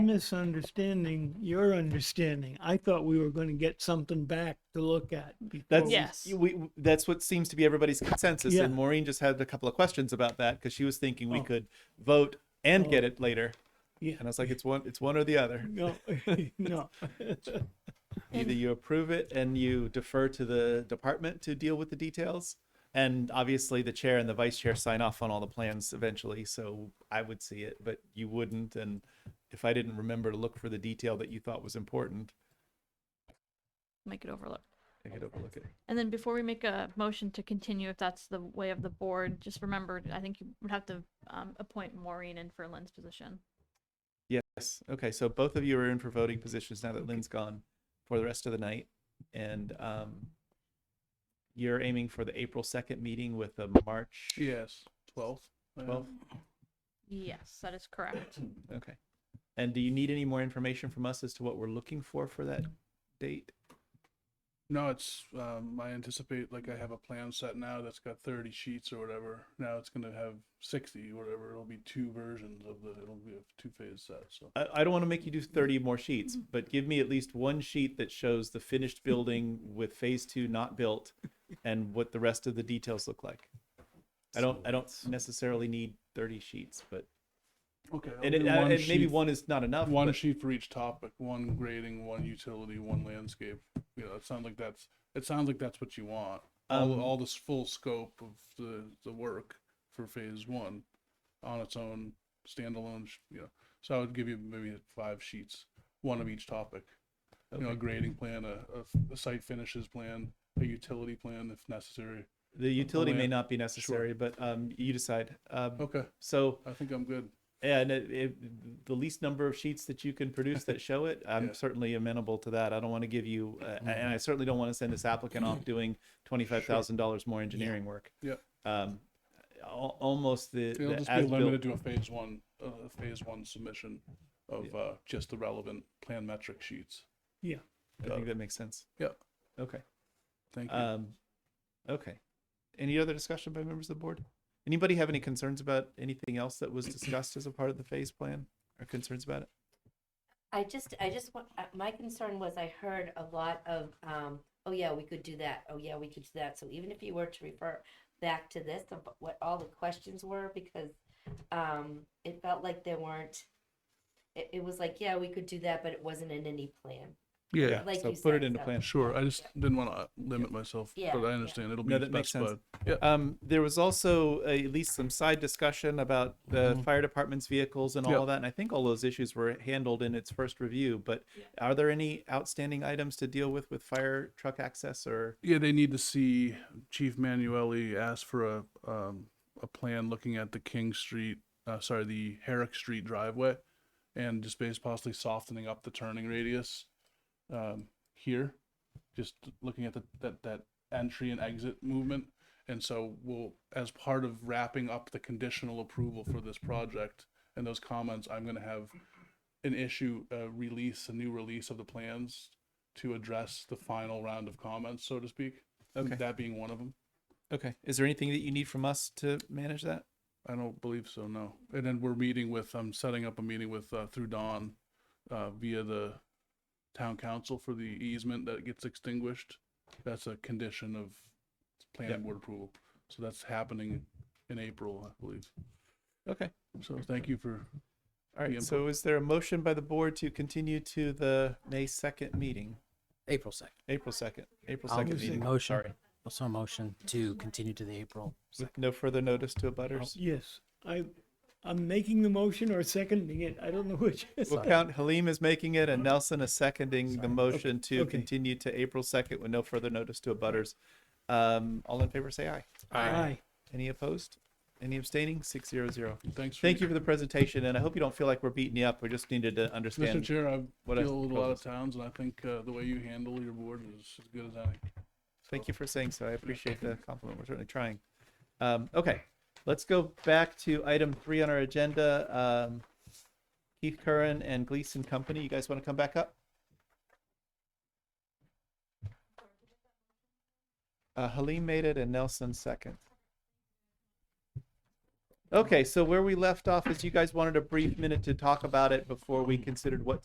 misunderstanding your understanding. I thought we were going to get something back to look at. before That's we- yes. Yes. We, that's what seems to be everybody's consensus. Yeah. And Maureen just had a couple of questions about that because she was thinking we Oh. could vote and get it later. Yeah. And I was like, it's one, it's one or the other. No, no. Either you approve it and you defer to the department to deal with the details, and obviously the chair and the vice chair sign off on all the plans eventually. So I would see it, but you wouldn't. And if I didn't remember to look for the detail that you thought was important, Make it overlook. I could overlook it. And then before we make a motion to continue, if that's the way of the board, just remember, I think you would have to um, appoint Maureen in for Lynn's position. Yes. Okay. So both of you are in for voting positions now that Lynn's gone for the rest of the night. And um, you're aiming for the April 2nd meeting with a March Yes, twelfth. 12th. Yes, that is correct. Okay. And do you need any more information from us as to what we're looking for for that date? No, it's, um, I anticipate, like, I have a plan set now that's got thirty sheets or whatever. Now it's gonna have sixty, whatever. It'll be two versions of the, it'll be a two-phase set, so. I, I don't want to make you do 30 more sheets, but give me at least one sheet that shows the finished building with phase two not built and what the rest of the details look like. I don't, I don't necessarily need 30 sheets, but Okay. I'll and, do it, uh, one and maybe sheet- one is not enough. One but- sheet for each topic, one grading, one utility, one landscape. You know, it sounds like that's, it sounds like that's what you want. All, Um, all this full scope of the, the work for phase one on its own standalone, sh- you know. So I would give you maybe five sheets, one of each topic. You know, a Okay. grading plan, a, a- a site finishes plan, a utility plan if necessary. the utility may land. not be necessary, but um, you decide. Um, Okay, So, I think I'm good. and it, it, the least number of sheets that you can produce that show it, I'm Yeah. Mm-hmm. certainly amenable to that. I don't want to give you, uh, and I certainly don't want to send this applicant off doing twenty-five thousand dollars more engineering work. Yeah. Um, al- almost the, It'll the just be as limited built. to a phase one, uh, a phase one submission of uh, just the relevant plan metric sheets. Yeah. I think that makes sense. Yeah, Okay. thank you. Um, okay. Any other discussion by members of the board? Anybody have any concerns about anything else that was discussed as a part of the phase plan or concerns about it? I just, I just want, uh, my concern was I heard a lot of, um, oh yeah, we could do that. Oh yeah, we could do that. So even if you were to refer back to this, of what all the questions were, because, um, it felt like there weren't, it, it was like, yeah, we could do that, but it wasn't in any plan. yeah, Like so you put it said, into so- plan. sure. I just didn't want to limit myself, Yeah, but I yeah. understand it'll be No, that makes sense. specified. Yeah, Um, there was also uh, at least some side discussion about the fire department's vehicles and all Yeah. of that, and I think all those issues were handled in its first review. But are there any outstanding items to deal with with fire truck access or? yeah. They need to see Chief Manueli ask for a um, a plan looking at the King Street, uh, sorry, the Herrick Street driveway, and just based possibly softening up the turning radius um, here. just looking at the, that that entry and exit movement. And so we'll, as part of wrapping up the conditional approval for this project and those comments, I'm going to have an issue, a release, a new release of the plans to address the final round of comments, so to speak. Okay. And that being one of them. Okay, is there anything that you need from us to manage that? I don't believe so, no. And then we're meeting with, I'm setting up a meeting with, uh, through Dawn, uh, via the town council for the easement that gets extinguished. That's a condition of planning Yep. board approval. So that's happening in April, I believe. Okay, So thank you for, all right. The So is there a motion by the board to continue to the May second meeting, April second. April second, April I'll second give the meeting? motion. Sorry, Also a motion to continue to the April. with no further notice to abutters. Yes, I, I'm making the motion or seconding it. I don't know which. We'll count Halim is making it and Nelson is seconding the motion to Okay. continue to April second with no further notice to abutters. Um, all in favor, say aye. Aye. Any opposed? Any abstaining? Six zero zero. thanks. for- Thank you for the presentation and I hope you don't feel like we're beating you up. We just needed to Mr. understand. Chair, I what I deal with a lot of proposed. towns and I think, uh, the way you handle your board is as good as any. Thank you for saying so. I appreciate the compliment. We're certainly trying. Um, okay, let's go back to item three on our agenda. Um, Keith Curran and Gleason Company. You guys want to come back up? Uh, Halim made it and Nelson second. Okay, so where we left off is you guys wanted a brief minute to talk about it before we considered what